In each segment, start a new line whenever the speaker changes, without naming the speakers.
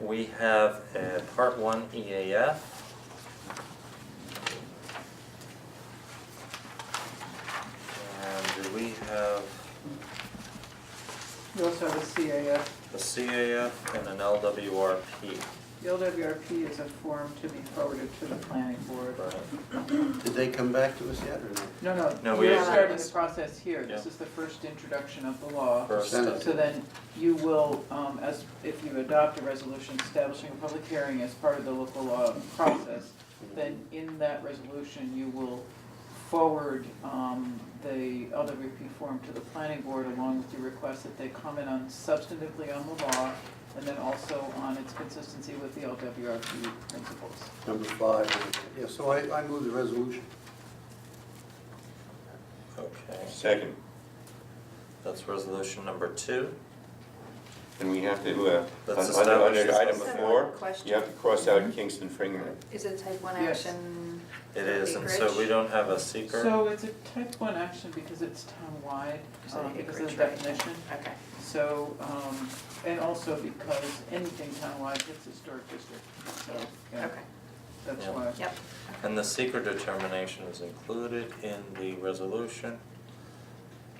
We have a part one E EAF. And do we have
You also have a CAF.
a CAF and an LWRP?
The LWRP is a form to be forwarded to the planning board.
Right.
Did they come back to us yet or not?
No,
No,
no,
we-
we're starting the process here. This
Yeah.
is the first introduction of the law.
First,
Send it.
So then you will, um, as, if you adopt a resolution establishing a public hearing as part of the local law process, then in that resolution, you will forward, um, the LWP form to the planning board along with your request that they comment on substantively on the law and then also on its consistency with the LWRP principles.
Number five, yeah, so I, I move the resolution.
okay,
Second,
that's resolution number two.
and we have to, uh, on-
Let's
on- on
establish-
item
Just have
before,
one question.
you have to cross out Kingston Finger.
Is it type one
Yes.
action?
It is, and so
Acreage?
we don't have a seeker.
So it's a type one action because it's townwide,
Is it
um, because of the
acreage, right?
definition.
Okay.
So, um, and also because anything townwide hits historic district, so, yeah,
Okay,
that's
Yeah.
why.
yep.
And the seeker determination is included in the resolution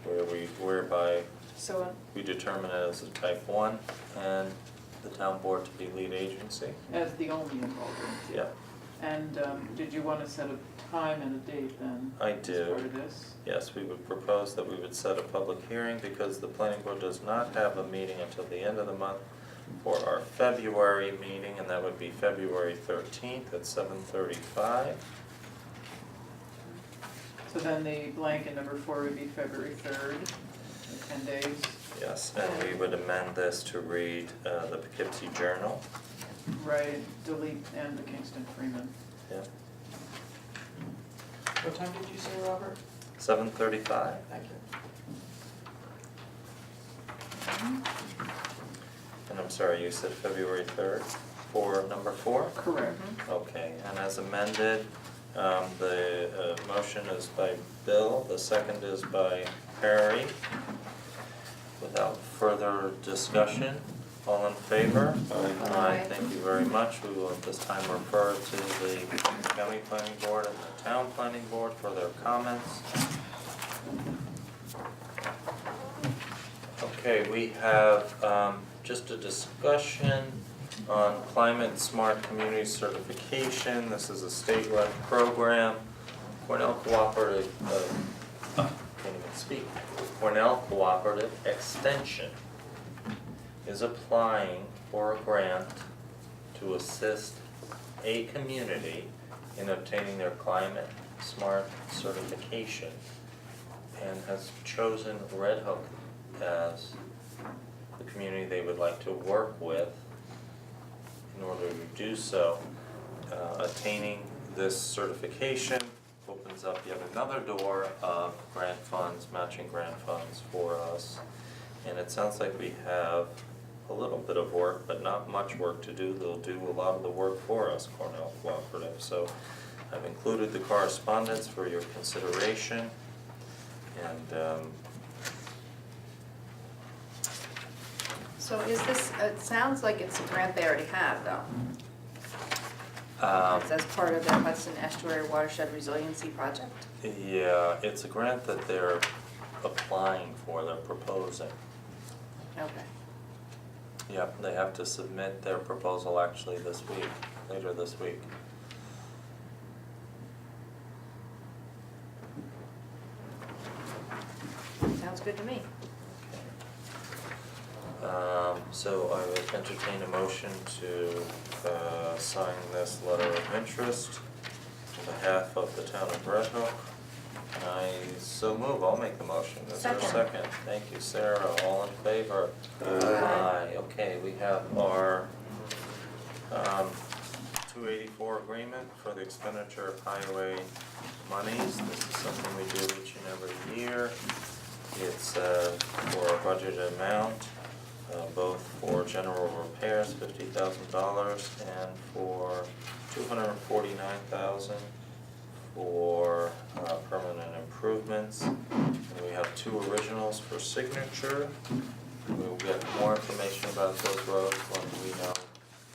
where we, whereby
So, uh,
we determine it as a type one and the town board to be lead agency.
As the only involved entity.
Yeah,
And, um, did you wanna set a time and a date then?
I
For
do.
this?
Yes, we would propose that we would set a public hearing because the planning board does not have a meeting until the end of the month for our February meeting, and that would be February thirteenth at seven thirty-five.
So then the blank in number four would be February third, ten days.
Yes, and we would amend this to read uh, the Poughkeepsie Journal.
Right, delete and the Kingston Freeman.
Yeah,
What time did you say, Robert?
seven thirty-five.
Thank you.
And I'm sorry, you said February third for number four?
Correct.
Okay, and as amended, um, the, uh, motion is by Bill, the second is by Harry. Without further discussion, all in favor?
Aye.
Aye.
Thank you very much, we will at this time refer to the county planning board and the town planning board for their comments. Okay, we have, um, just a discussion on climate smart community certification. This is a statewide program. Cornell Cooperative, uh, uh, can't even speak. Cornell Cooperative Extension is applying for a grant to assist a community in obtaining their climate smart certification and has chosen Red Hook as the community they would like to work with in order to do so. Uh, attaining this certification opens up yet another door of grant funds, matching grant funds for us. And it sounds like we have a little bit of work, but not much work to do. They'll do a lot of the work for us, Cornell Cooperative. So I've included the correspondence for your consideration. And um,
so is this, it sounds like it's a grant they already have though.
um,
It's as part of the Hudson Estuary Watershed Resiliency Project.
yeah, uh, it's a grant that they're applying for, they're proposing.
Okay.
Yeah, they have to submit their proposal actually this week, later this week.
Sounds good to me.
Um, so I would entertain a motion to, uh, sign this letter of interest on behalf of the town of Red Hook. And I so move, I'll make the motion, is there a
Second.
second? Thank you, Sarah, all in favor?
Aye.
Aye.
Aye, okay, we have our, um, two eighty-four agreement for the expenditure of highway monies. This is something we do each and every year. It's uh, for a budgeted amount, uh, both for general repairs, fifty thousand dollars, and for two hundred and forty-nine thousand for uh, permanent improvements. And we have two originals for signature. We will get more information about those roads when we know